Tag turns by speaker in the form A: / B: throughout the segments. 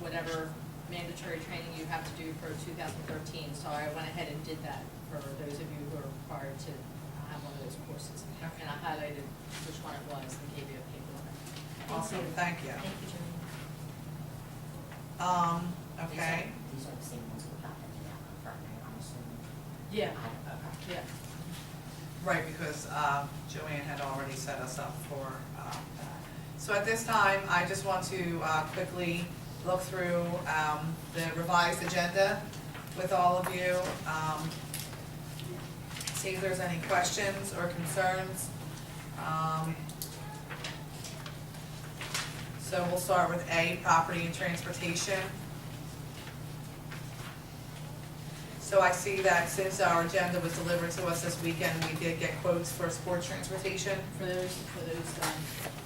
A: whatever mandatory training you have to do for 2013. So I went ahead and did that for those of you who are required to have one of those courses.
B: Okay.
A: And I highlighted which one it was and gave you a paperwork.
B: Awesome, thank you.
C: Thank you, Jimmy.
B: Um,
C: These are-
B: okay,
C: These are the same ones we got that you have in front of me, I'm assuming.
A: Yeah,
C: I- okay.
A: yeah.
B: right, because, uh, Joanne had already set us up for, uh, that. So at this time, I just want to, uh, quickly look through, um, the revised agenda with all of you. Um, see if there's any questions or concerns. Um, So we'll start with A, property and transportation. So I see that since our agenda was delivered to us this weekend, we did get quotes for sports transportation,
A: For those, for those, um,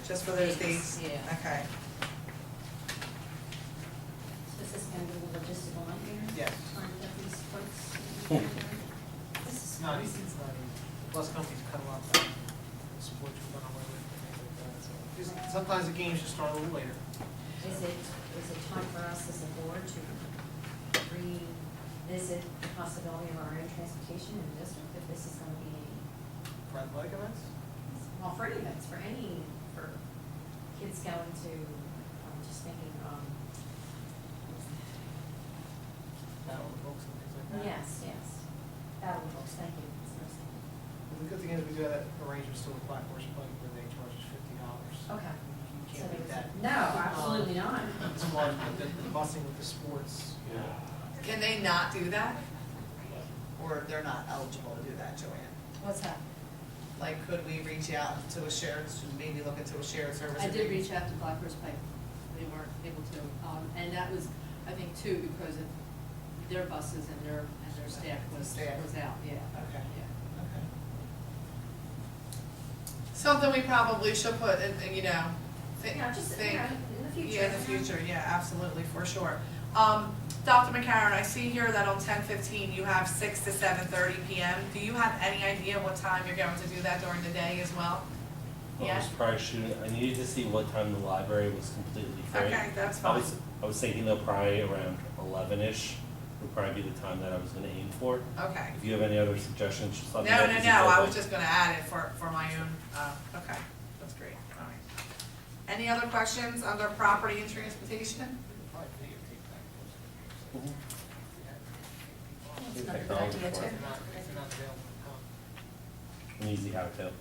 B: just for those days?
A: Yeah.
B: Okay,
C: This is gonna be the logistical nightmare
D: Yes.
C: on these points. This
D: It's
C: is.
D: not easy, it's not easy. Plus companies cut a lot of time, support you run away with, things like that, so. Just- Sometimes the games just start a little later.
C: Is it, is it time for us as a board to revisit the possibility of our own transportation in the district if this is gonna be
D: Red light events?
C: well for any events, for any, for kids going to, I'm just thinking, um,
D: Battle of the books and things like that.
C: yes, yes, battle books, thank you. That's what I was thinking.
D: But The good thing is we do have arrangements still with Black Horse Pike where they charge us fifty dollars.
C: Okay.
D: You
C: So
D: can't beat
C: there
D: that. Um,
C: was- No, absolutely not.
D: It's one, but the, the busing with the sports, you know,
B: can they not do that? Or they're not eligible to do that, Joanne?
A: what's that?
B: Like, could we reach out to a shared, to maybe look into a shared service?
A: I did
B: agreement?
A: reach out to Black Horse Pike, they weren't able to, um, and that was, I think, too, because of their buses and their, and their staff was,
B: Staff.
A: was out, yeah.
B: Okay.
A: Yeah.
B: Okay. Something we probably should put in, in, you know, think,
C: Yeah, just, you
B: think.
C: know, in the future.
B: Yeah, in the
C: you know.
B: future, yeah, absolutely, for sure. Um, Dr. McCarron, I see here that on ten fifteen, you have six to seven thirty PM. Do you have any idea what time you're going to do that during the day as well?
E: Well, I was prior shooting, I needed to see what time the library was completely free.
B: Okay, that's
E: I
B: fine.
E: was, I was thinking though probably around eleven-ish would probably be the time that I was gonna aim for.
B: Okay.
E: If you have any other suggestions, just
B: No,
E: let me know.
B: no,
E: 'cause
B: no, I was
E: it's
B: just gonna add it for, for my own, uh, okay, that's great, all right. Any other questions under property and transportation?
D: probably
C: That's
D: videotape Black Horse.
E: open. Mhm. New
C: not a good
E: technology
C: idea,
E: for
C: too.
E: it.
D: If they're not, if they're not available, um,
E: An easy how to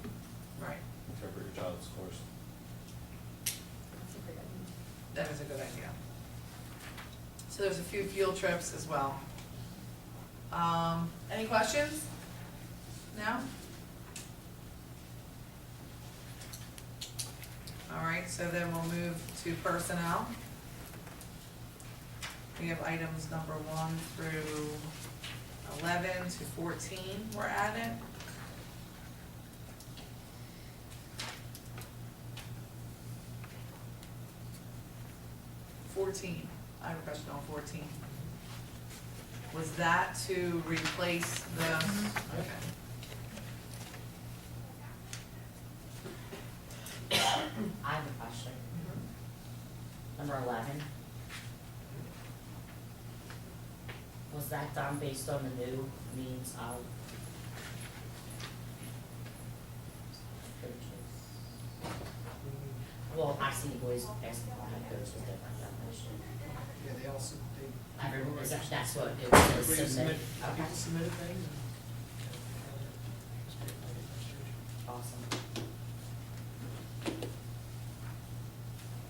B: Right,
E: interpret your child's course.
C: That's a great idea.
B: that is a good idea. So there's a few field trips as well. Um, any questions? No? All right, so then we'll move to personnel. We have items number one through eleven to fourteen were added. Fourteen, I have a question on fourteen. Was that to replace the, okay.
C: I have a question. Number eleven. Was that done based on the new means of? purchase? Well, I see boys basketball had those with different definition.
D: Yeah, they also, they.
C: Everyone, is that, that's what it was
D: Everybody
C: submitted?
D: submit-
C: Okay,
D: People submitted things. and-
C: awesome.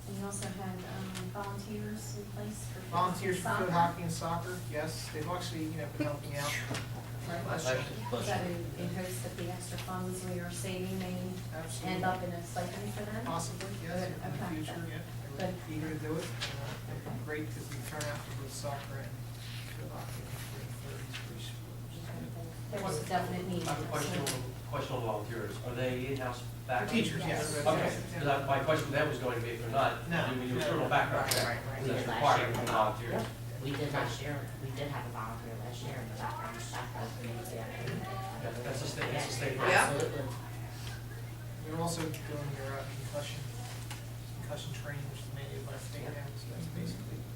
C: And you also had, um, volunteers in place for.
D: Volunteers for field hockey and soccer, yes, they've actually, you know, been helping out.
E: Pleasure.
C: So in hopes that the extra funds we are saving may end
D: Absolutely,
C: up in a stipend for them?
D: possibly, yes,
C: Good,
D: in the
C: okay.
D: future, yeah, they were eager to do it. and, uh, it'd be Great, because we turn out for both soccer and field hockey, third, three sports.
C: There was a definite need.
F: I have a question, on- question on volunteers, are they in-house
D: For
F: background?
D: teachers, yes.
C: Yes.
F: Okay, 'cause I- my question then was going to be, if they're not,
D: No.
F: do we do a criminal background
D: Right,
F: check?
D: right, right.
F: Because That's
C: Yeah.
F: required from volunteers.
C: We did last year, we did have a volunteer last year, but that round shot was amazing.
F: That- That's a state, that's a state.
B: Yeah.
C: Absolutely.
D: You're also doing your uh, concussion, concussion training, which is mandated by state now, so that's basically